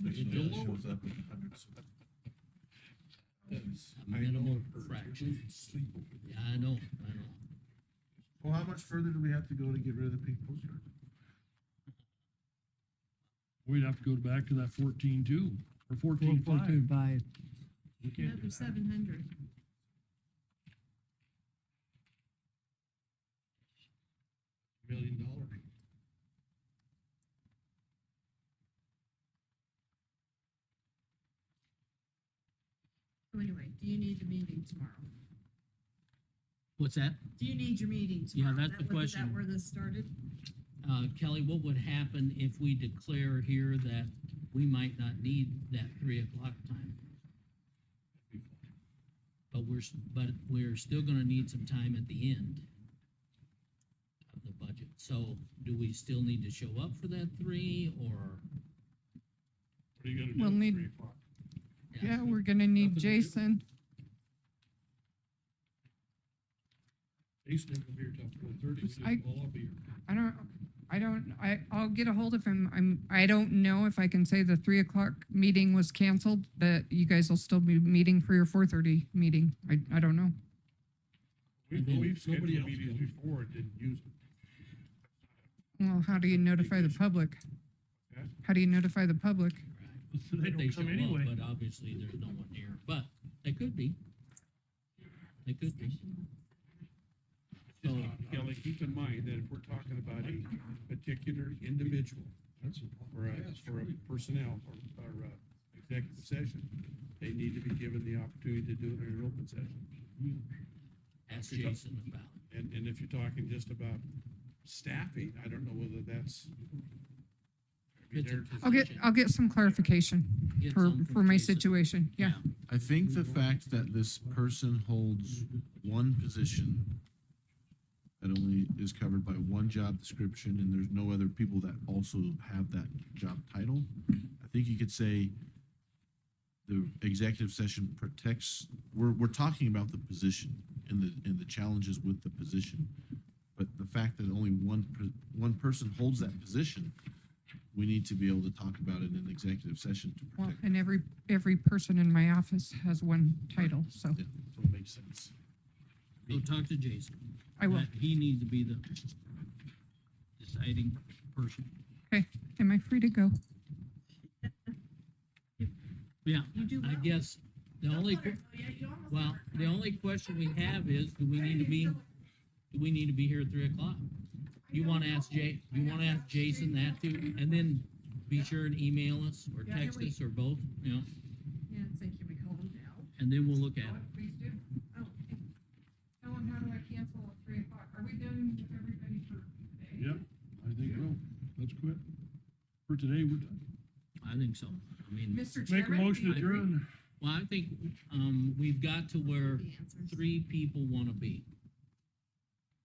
Still shows up in hundreds. A minimal fraction. Yeah, I know, I know. Well, how much further do we have to go to get rid of the pink postcard? We'd have to go back to that fourteen two or fourteen five. We can't do Another that. seven hundred. Million dollar. So anyway, do you need the meeting tomorrow? What's that? Do you need your meeting Yeah, tomorrow? that's That the what- Is question. that where this started? Uh, Kelly, what would happen if we declare here that we might not need that three o'clock time? But we're, s- but we're still gonna need some time at the end of the budget. So do we still need to show up for that three or? What are you gonna do We'll at need- three o'clock? Yeah, we're gonna need Nothing to do. Jason. Jason ain't gonna be here till four thirty. We just, I- well, I'll be here. I don't, I don't, I, I'll get a hold of him. I'm, I don't know if I can say the three o'clock meeting was canceled, but you guys will still be meeting for your four thirty meeting. I, I don't know. And We've, then we've scheduled nobody else meetings goes. before and didn't use it. Well, how do you notify the public? Yeah. How do you notify the public? So They If don't show come up, anyway. But obviously, there's no one here, but they could be. They could be. Just, Uh, Kelly, keep in mind that if we're talking about a particular individual or a, or a personnel or, or a executive session, they need to be given the opportunity to do it in an open session. Ask You're talk- Jason about it. And, and if you're talking just about staffing, I don't know whether that's. I mean, It's a there- I'll get, position. I'll get some clarification Get for, some from for my Jason. situation. Yeah. I think the fact that this person holds one position that only is covered by one job description and there's no other people that also have that job title, I think you could say the executive session protects, we're, we're talking about the position and the, and the challenges with the position. But the fact that only one, per- one person holds that position, we need to be able to talk about it in an executive session to Well, protect, and every, every person in my office has one title, so yeah, so it makes sense. Go talk to Jason. I will. That- He needs to be the deciding person. Am I free to go? Yeah, You do I well. guess the only, que- well, the only question we have is, do we need to be, do we need to be here at three o'clock? You wanna ask Jay, you wanna ask Jason that too, and then be sure and email us or Yeah, text every- us or both, you know, Yeah, it's like, can we call him now? and then we'll look at it. Please do. Oh, okay. Tell him, how do I cancel at three o'clock? Are we done with everybody for today? Yep, I think so. Let's quit. For today, we're done. I think so. I mean, Mr. Make Chairman? a motion to I agree. adjourn. well, I think, um, we've got to where The answers. three people wanna be.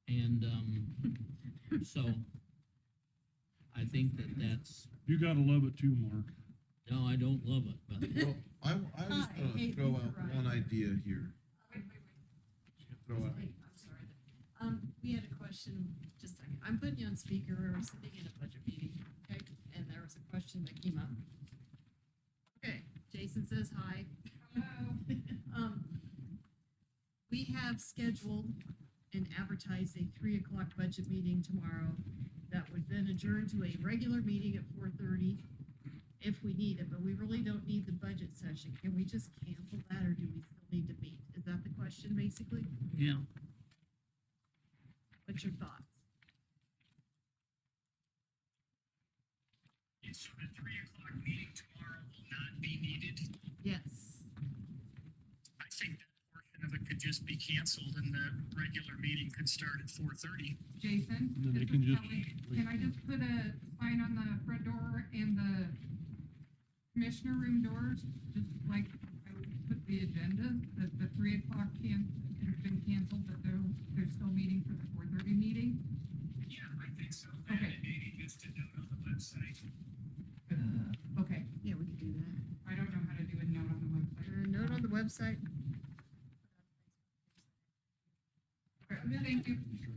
And, um, so I think that that's, You gotta love it too, Mark. no, I don't love it, but Well, I, I was I gonna hate throw these out varieties. one idea here. Wait, wait, wait. Throw out, Wait, I'm sorry. Um, we had a question, just a second. I'm putting you on speaker. We were sitting in a budget meeting, okay? And there was a question that came up. Okay, Jason says hi. Um, we have scheduled and advertised a three o'clock budget meeting tomorrow that would then adjourn to a regular meeting at four thirty if we need it, but we really don't need the budget session. Can we just cancel that or do we still need to meet? Is that the question basically? yeah. What's your thoughts? So the three o'clock meeting tomorrow will not be needed. Yes. I think that portion of it could just be canceled and the regular meeting could start at four thirty. Jason? Then this they can is just- Kelly. Can I just put a sign on the front door and the commissioner room doors, just like I would put the agenda, that the three o'clock can, has been canceled, but they're, they're still meeting for the four thirty meeting? Yeah, I think so. Okay. And maybe just a note on the website. Uh, Okay, Yeah, we could do that. I don't know how to do a note on the website. Uh, note on the website. Thank you.